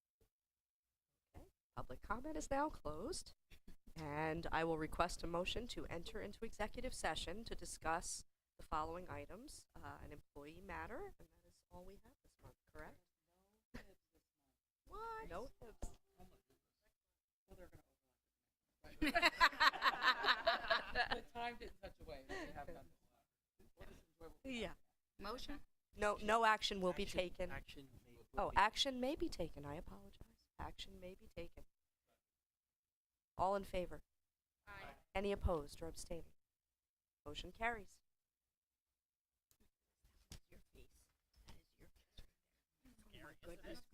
Public comment is now closed, and I will request a motion to enter into executive session to discuss the following items, uh, an employee matter, and that is all we have this month, correct? What? No tips. The timed it in such a way that we have done this. Yeah. Motion? No, no action will be Action- taken. Action may- will Oh, be- action may be taken. I apologize. Action may be taken. All in favor? Aye. Any opposed or abstaining? Motion carries. Your face. That is your face right there. Oh my goodness